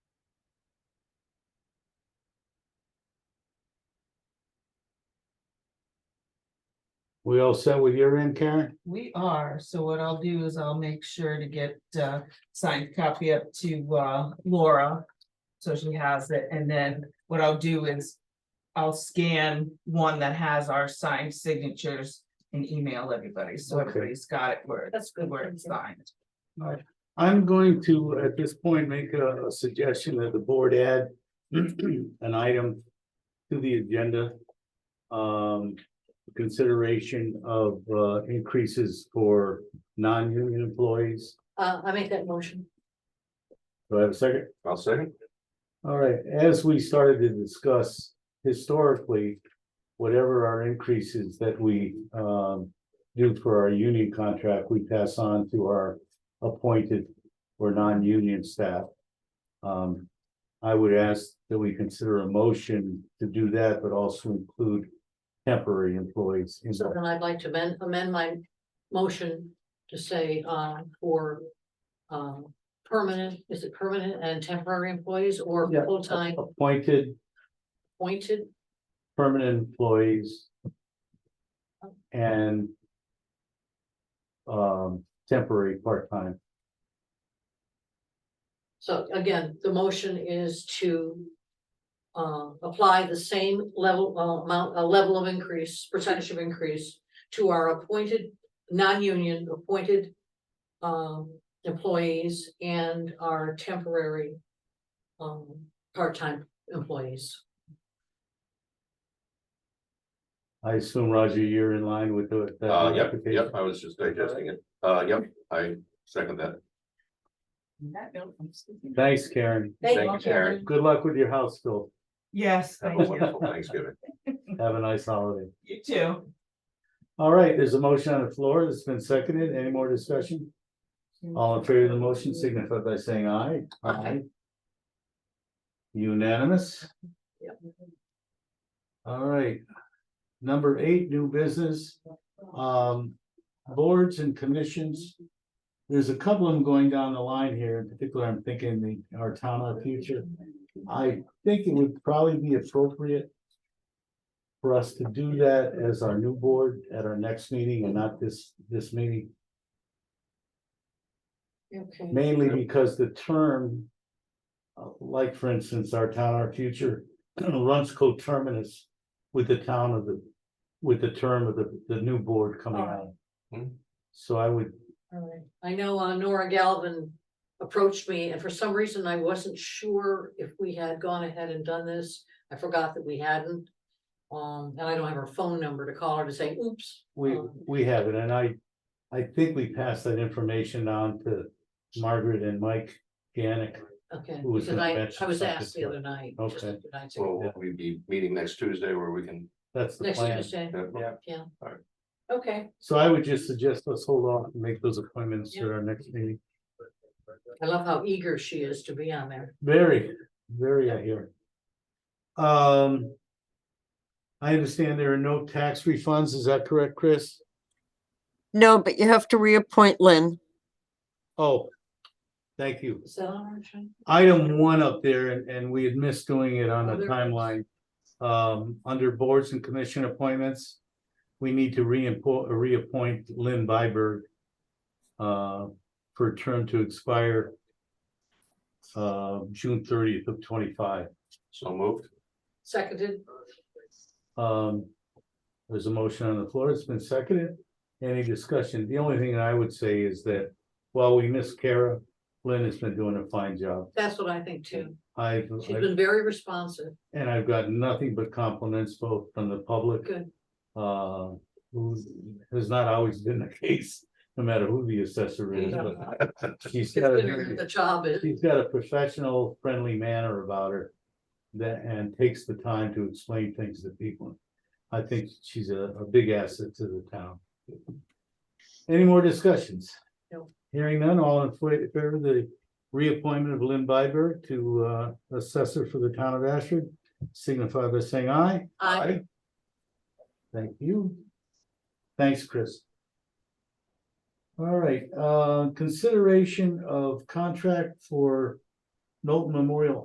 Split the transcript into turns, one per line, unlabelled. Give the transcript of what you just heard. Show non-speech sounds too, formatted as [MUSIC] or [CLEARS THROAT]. We all set with your end, Karen?
We are, so what I'll do is I'll make sure to get uh signed copy up to uh Laura. So she has it, and then what I'll do is. I'll scan one that has our signed signatures and email everybody, so
Okay.
everybody's got it where.
That's good,
Where
thank
it's
you.
signed.
I'm going to, at this point, make a, a suggestion that the board add [CLEARS THROAT] an item to the agenda. Um, consideration of, uh, increases for non-union employees.
Uh, I make that motion.
Do I have a second?
I'll second.
All right, as we started to discuss historically, whatever our increases that we um do for our union contract, we pass on to our appointed or non-union staff. Um, I would ask that we consider a motion to do that, but also include temporary employees. in
So
that.
then I'd like to amend, amend my motion to say, uh, for. Um, permanent, is it permanent and temporary employees or
Yeah.
full-time
Appointed
appointed?
permanent employees. And. Um, temporary part-time.
So again, the motion is to. Uh, apply the same level, uh, amount, a level of increase, percentage of increase to our appointed, non-union appointed. Um, employees and our temporary. Um, part-time employees.
I assume, Roger, you're in line with the. that
Uh, yep,
application?
yep, I was just digesting it. Uh, yep, I second that.
On that note, I'm speaking.
Thanks, Karen.
Thank you, Karen.
Good luck with your house, Phil.
Yes,
Have
thank
a
you,
wonderful Thanksgiving.
Have a nice holiday.
you too.
All right, there's a motion on the floor that's been seconded. Any more discussion? All in favor of the motion signify by saying aye.
Aye.
Unanimous.
Yep.
All right. Number eight, new business, um, boards and commissions. There's a couple of them going down the line here. In particular, I'm thinking the, our town of the future. I think it would probably be appropriate for us to do that as our new board at our next meeting and not this, this meeting,
Okay,
mainly
Yep.
because the term uh, like, for instance, our town, our future [CLEARS THROAT] runs coterminous with the town of the, with the term of the, the new board coming out.
Hmm.
So I would,
all right. I know uh, Nora Galvin approached me and for some reason I wasn't sure if we had gone ahead and done this. I forgot that we hadn't. Um, and I don't have her phone number to call her to say, oops.
we,
Um,
we have it, and I, I think we passed that information on to Margaret and Mike Gannick.
Okay,
Who was
because
gonna
I,
mention
I was
something
asked
to
the
her?
other night. just
Okay.
the other night,
So
so
will we be meeting next Tuesday where we can.
That's the
Next
plan.
Tuesday,
Yeah.
yeah.
All right.
Okay,
So I would just suggest let's hold off and make those appointments at our next meeting.
I love how eager she is to be on there.
Very, very, I hear. Um. I understand there are no tax refunds, is that correct, Chris?
No, but you have to reappoint Lynn.
Oh. Thank you.
Is that on our agenda?
Item one up there, and, and we had missed doing it on
Oh,
the
there it is.
timeline. Um, under boards and commission appointments. We need to reappoint, reappoint Lynn Byberg. Uh, for a term to expire. Uh, June thirtieth of twenty-five.
So moved. [LAUGHS]
Seconded,
Um, there's a motion on the floor. It's been seconded. Any discussion? The only thing I would say is that while we miss Kara, Lynn has been doing a fine job.
that's what I think too.
I've,
She's been very responsive.
and I've gotten nothing but compliments both from the public.
Good.
Uh, who has not always been the [LAUGHS] case, no matter who the assessor is, but she's got a,
The job is,
she's got a professional, friendly manner about her. That, and takes the time to explain things to people. I think she's a, a big asset to the town. Any more discussions?
No.
Hearing none, all in fa- favor of the reappointment of Lynn Byberg to, uh, assessor for the town of Ashford, signify by saying aye.
I,
Thank you. Thanks, Chris. All right, uh, consideration of contract for Knowlton Memorial